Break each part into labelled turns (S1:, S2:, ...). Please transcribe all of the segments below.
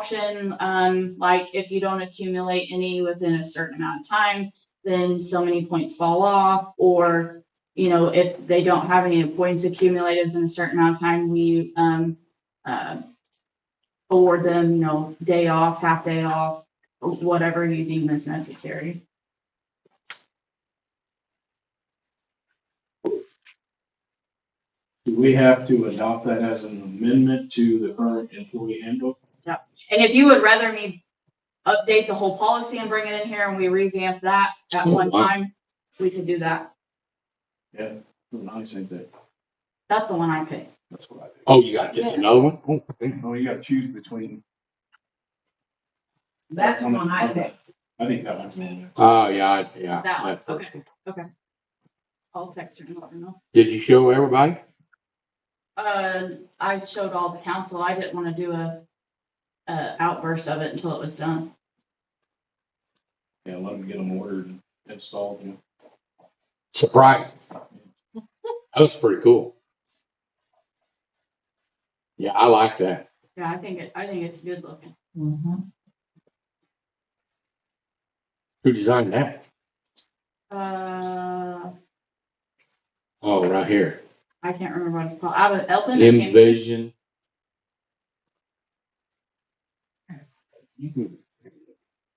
S1: option, um, like if you don't accumulate any within a certain amount of time, then so many points fall off, or, you know, if they don't have any points accumulated in a certain amount of time, we, um, uh, award them, you know, day off, half day off, whatever you deem is necessary.
S2: Do we have to adopt that as an amendment to the current employee handbook?
S1: And if you would rather me update the whole policy and bring it in here and we revamp that at
S3: Oh,
S1: one
S3: wow.
S1: time, we could do that.
S2: When I said that,
S1: That's the one I picked.
S2: that's what I
S3: Oh, you got just another one? Oh, okay.
S2: did. Oh, you gotta choose between,
S4: That's the one I picked.
S2: I think that one's man.
S3: Oh, yeah, I- yeah.
S1: That one,
S3: that first
S1: okay. I'll text her and let her know.
S3: Did you show everybody?
S1: Uh, I showed all the council. I didn't wanna do a, a outburst of it until it was done.
S2: Yeah, let them get them ordered and installed, you know.
S3: Surprise. That was pretty cool. Yeah, I like that.
S1: Yeah, I think it, I think it's good looking.
S4: Mhm.
S3: Who designed that?
S1: Uh,
S3: Oh, right here.
S1: I can't remember what it's called. Out of Elton. I can't-
S3: Envision.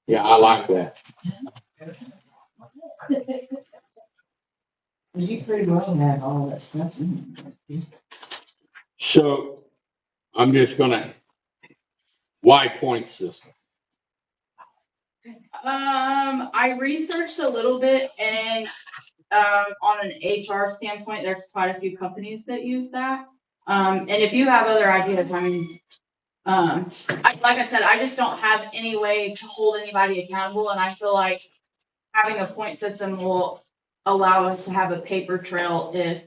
S3: Yeah, I like that.
S4: You pretty well had all that stuff
S1: Um,
S4: in there.
S3: So I'm just gonna, why point system?
S1: Um, I researched a little bit and, um, on an HR standpoint, there's quite a few companies that use that. Um, and if you have other ideas, I mean, um, I, like I said, I just don't have any way to hold anybody accountable and I feel like having a point system will allow us to have a paper trail if,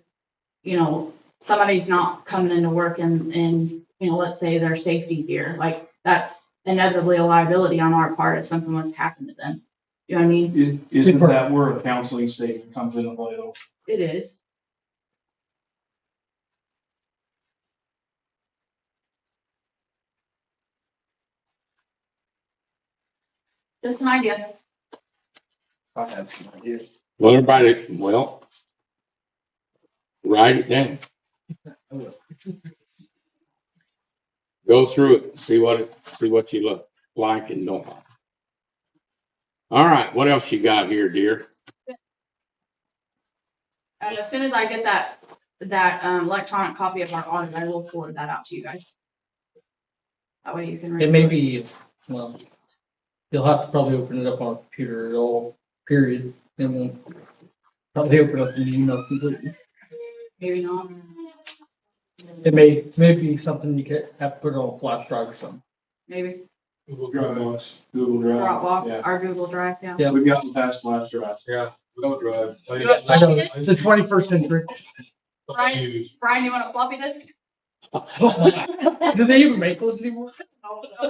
S1: you know, somebody's not coming into work and, and, you know, let's say their safety gear, like that's inevitably a liability on our part if something was to happen to them. You know what I mean?
S2: Is, isn't that where a counseling statement comes into play though?
S1: It is. Just an idea.
S2: I had some ideas.
S3: Well, everybody, well, write it down. Go through it, see what, it see what you look like and don't like. All right, what else you got here, dear?
S1: And as soon as I get that, that um, electronic copy of our audit, I will forward that out to you guys. That way you can read.
S5: It may
S1: it.
S5: be, well, you'll have to probably open it up on a computer at all, period, and then probably open up an email completely.
S1: Maybe not.
S5: It may, may be something you could have to put on a flash drive or something.
S1: Maybe
S6: Google Drive,
S2: Dropbox, Google Drive,
S1: Dropbox, our Google Drive, yeah.
S2: yeah. We've gotten past flash drive.
S6: yeah, without Drive. I
S1: You want
S5: I know,
S1: floppy disk?
S5: it's the twenty-first century.
S1: Right.
S6: use-
S1: Brian, you want a floppy disk?
S5: Do they even make those anymore?
S1: Uh,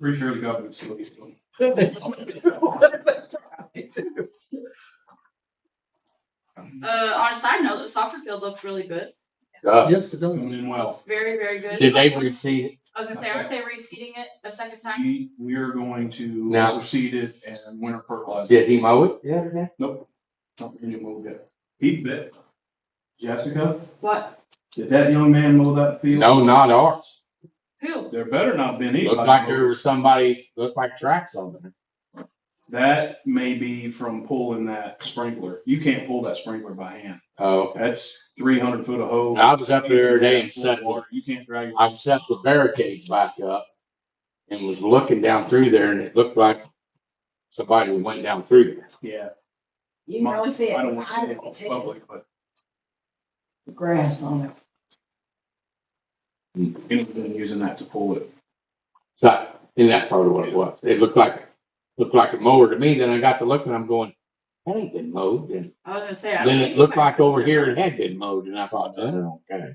S2: Pretty sure the government's still using them.
S1: Uh, on a side note, the soccer field looked really good.
S3: Uh,
S5: Yes, it does.
S2: Doing it well.
S1: Very, very good.
S3: Did they receive it?
S1: I was gonna say, aren't they reseeding it a second time?
S2: We, we are going to
S3: Now-
S2: proceed it and winter fertilizer.
S3: Did he mow it? Yeah, did
S2: Nope, not really move yet. He bet. Jessica,
S1: What,
S2: did that young man mow that field?
S3: No, not ours.
S1: who?
S2: There better not been anybody.
S3: Looked like
S2: mow.
S3: there was somebody, looked like tracks on there.
S2: That may be from pulling that sprinkler. You can't pull that sprinkler by hand.
S3: Oh, okay.
S2: That's three hundred foot of hose.
S3: I was up there today and set,
S2: Water. You can't drag it.
S3: I set the barricades back up and was looking down through there and it looked like somebody went down through there.
S2: Yeah.
S4: You can really see it.
S2: I don't want to say it
S4: I
S2: in
S4: take
S2: public, but
S4: the Grass on it.
S2: anyone using that to pull it.
S3: So, and that's probably what it was. It looked like, looked like a mower to me. Then I got to looking, I'm going, that ain't been mowed. And
S1: I was gonna say. I don't
S3: then
S1: think
S3: it looked
S1: anybody's-
S3: like over here it had been mowed and I thought, oh, okay.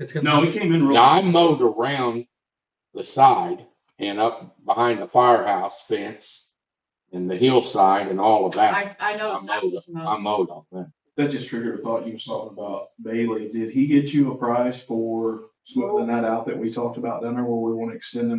S5: It's gonna-
S2: No, he came in real.
S3: Now I mowed around the side and up behind the firehouse fence and the hillside and all of that.
S1: I, I noticed that was
S3: I
S1: mowed.
S3: mowed on that.
S2: That just triggered a thought you was talking about Bailey. Did he get you a prize for smoothing that out that we talked about down there where we want to extend the